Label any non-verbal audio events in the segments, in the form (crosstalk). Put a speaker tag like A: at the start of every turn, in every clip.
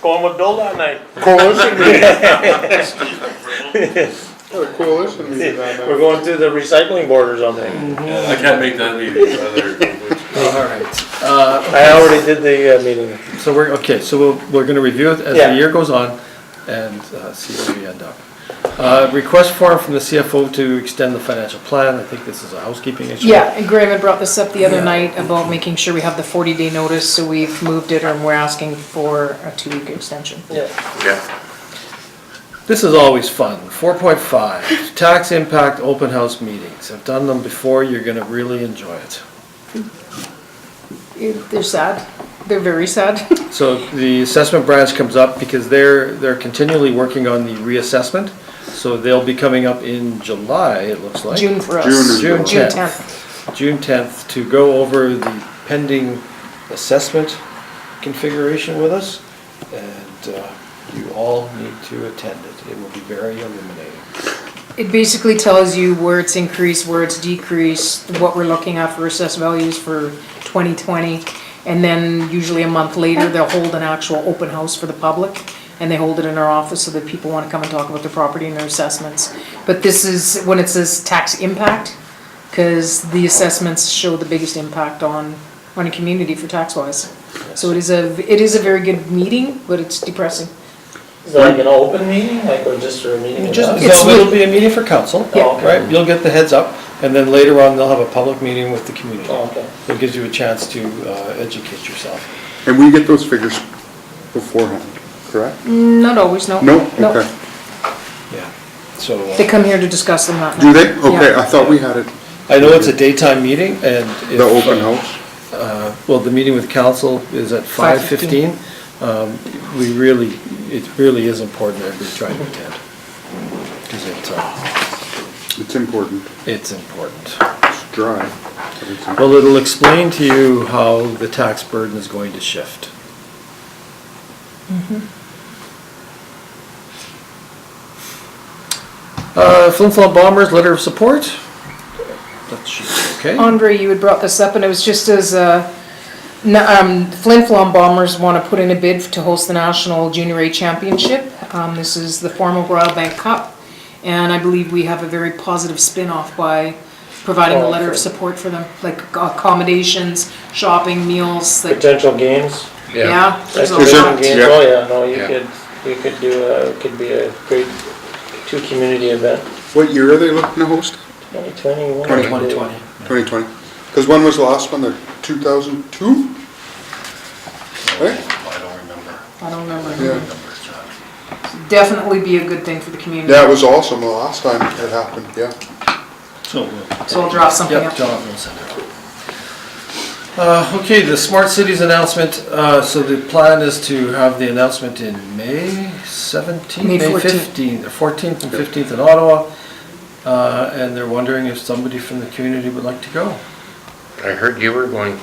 A: Cornwood Build-On Night.
B: Coalition meeting. A coalition meeting
A: We're
B: on that.
A: going through the recycling board or something.
C: Yeah, I can't make that meeting, whether,
D: All right, uh,
A: I already did the uh, meeting.
D: so we're, okay, so we'll, we're gonna review it as
A: Yeah.
D: the year goes on and, uh, see where we end up. Uh, request form from the CFO to extend the financial plan, I think this is a housekeeping issue.
E: Yeah, and Graham had brought this up the other
D: Yeah.
E: night about making sure we have the forty day notice, so we've moved it and we're asking for a two week extension.
C: yeah.
D: This is always fun. Four point five, tax impact open house meetings. I've done them before, you're gonna really enjoy it.
E: It- They're sad, they're very sad.
D: So the assessment branch comes up because they're, they're continually working on the reassessment. So they'll be coming up in July, it looks like.
E: June for us.
C: June is
D: June
E: June
D: 10th.
E: tenth.
D: June 10th to go over the pending assessment configuration with us, and uh, you all need to attend it. It will be very illuminating.
E: It basically tells you where it's increased, where it's decreased, what we're looking at for assessed values for twenty twenty. And then usually a month later, they'll hold an actual open house for the public. And they hold it in our office so that people wanna come and talk about their property and their assessments. But this is, when it says tax impact, cause the assessments show the biggest impact on, on a community for tax wise. So it is a, it is a very good meeting, but it's depressing.
A: Is it like an open meeting, like, or just a meeting?
D: Just,
E: It's
D: no, it'll
E: with-
D: be a meeting for council,
E: Yeah.
D: right? You'll get the heads up, and then later on, they'll have a public meeting with the community.
A: Oh, Okay.
D: So It gives you a chance to uh, educate yourself.
B: And we get those figures beforehand, correct?
E: Not always, no.
B: No? Okay.
D: Yeah. So uh,
E: They come here to discuss them that night.
B: Do they? Okay,
E: Yeah.
B: I thought we had it,
D: I know it's a daytime meeting, and. if,
B: the open
D: uh,
B: house.
D: Uh, Well, the meeting with council is at 5:15. Um, We really, it really is important that we try to attend, because it, uh,
B: It's important.
D: it's important.
B: It's dry. but it's important.
D: Well, it'll explain to you how the tax burden is going to shift. Uh, Flin Flon Bombers, letter of support? That should be okay.
E: Andre, you had brought this up, and it was just as, uh, n- um, Flin Flon Bombers want to put in a bid to host the National Junior A Championship. Um, This is the former Royal Bank Cup, and I believe we have a very positive spin-off by providing a letter of support for them, like accommodations, shopping, meals, like,
A: Potential games?
E: yeah. there's a
A: Like,
B: Is it-
A: potential
E: lot.
A: games,
B: yeah.
A: oh, yeah, no, you
C: Yeah.
A: could, you could do, a- it could be a great two-community event.
B: What year are they looking to host?
A: 2021.
D: 2020.
B: 2020? Because when was the last one? The 2002? Right?
C: I don't remember.
E: I don't remember.
B: Yeah.
E: Definitely be a good thing for the community.
B: That was awesome the last time it happened, yeah.
D: So we'll-
E: So I'll draw something
D: Yep,
E: up.
D: Jonathan will send it. Uh, okay, the smart cities announcement, uh, so the plan is to have the announcement in May seventeenth,
E: May
D: May
E: 14th.
D: fifteenth, or fourteenth and fifteenth in Ottawa. Uh, and they're wondering if somebody from the community would like to go.
F: I heard you were going,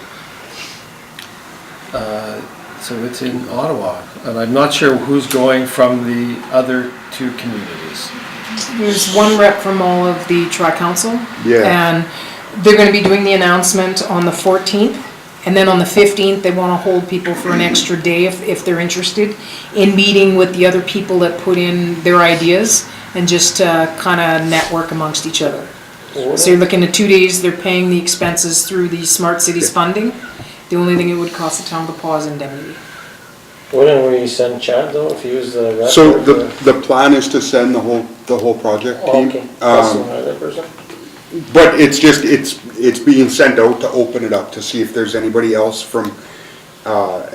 D: Uh, so it's in Ottawa, and I'm not sure who's going from the other two communities.
E: There's one rep from all of the tri-council.
B: Yeah.
E: And they're gonna be doing the announcement on the fourteenth, and then on the fifteenth, they wanna hold people for an extra day if, if they're interested in meeting with the other people that put in their ideas and just, uh, kinda network amongst each other. So you're looking at two days, they're paying the expenses through the smart cities funding. The only thing it would cost the town to pause indemnity.
A: Wouldn't we send Chad though, if he was the rep?
B: So
A: or
B: the, the plan is to send the whole, the whole project
A: Oh, Okay,
B: team?
A: that's
B: Um,
A: another person.
B: But it's just, it's, it's being sent out to open it up, to see if there's anybody else from, uh,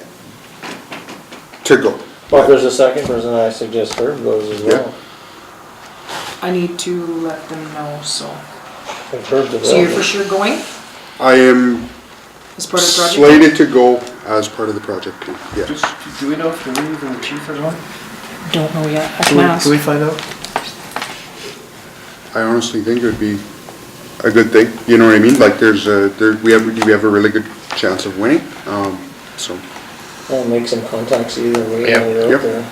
B: to go.
A: Well, if there's a second person, I suggest Herb goes as well.
E: I need to let them know, so.
A: If Herb the
E: So you're for
A: rep.
E: sure going
B: I am
E: as part of the project?
B: slated to go as part of the project team, yes.
D: Do we know if the lead and the chief are going?
E: Don't know yet, I
D: Can
E: can
D: we-
E: ask.
D: can we find out?
B: I honestly think it would be a good thing, you know what I mean? Like, there's a, there, we have, we have a really good chance of winning, um, so.
A: I'll make some contacts either way,
F: Yep.
A: while you're
B: Yep.
A: out there.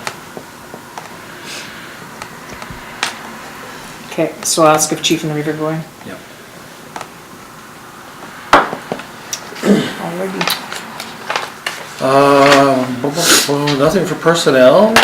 E: Okay, so I'll ask if Chief and the Reaper are going.
D: Yep.
E: Alrighty.
D: Um, (laughs) Nothing for personnel.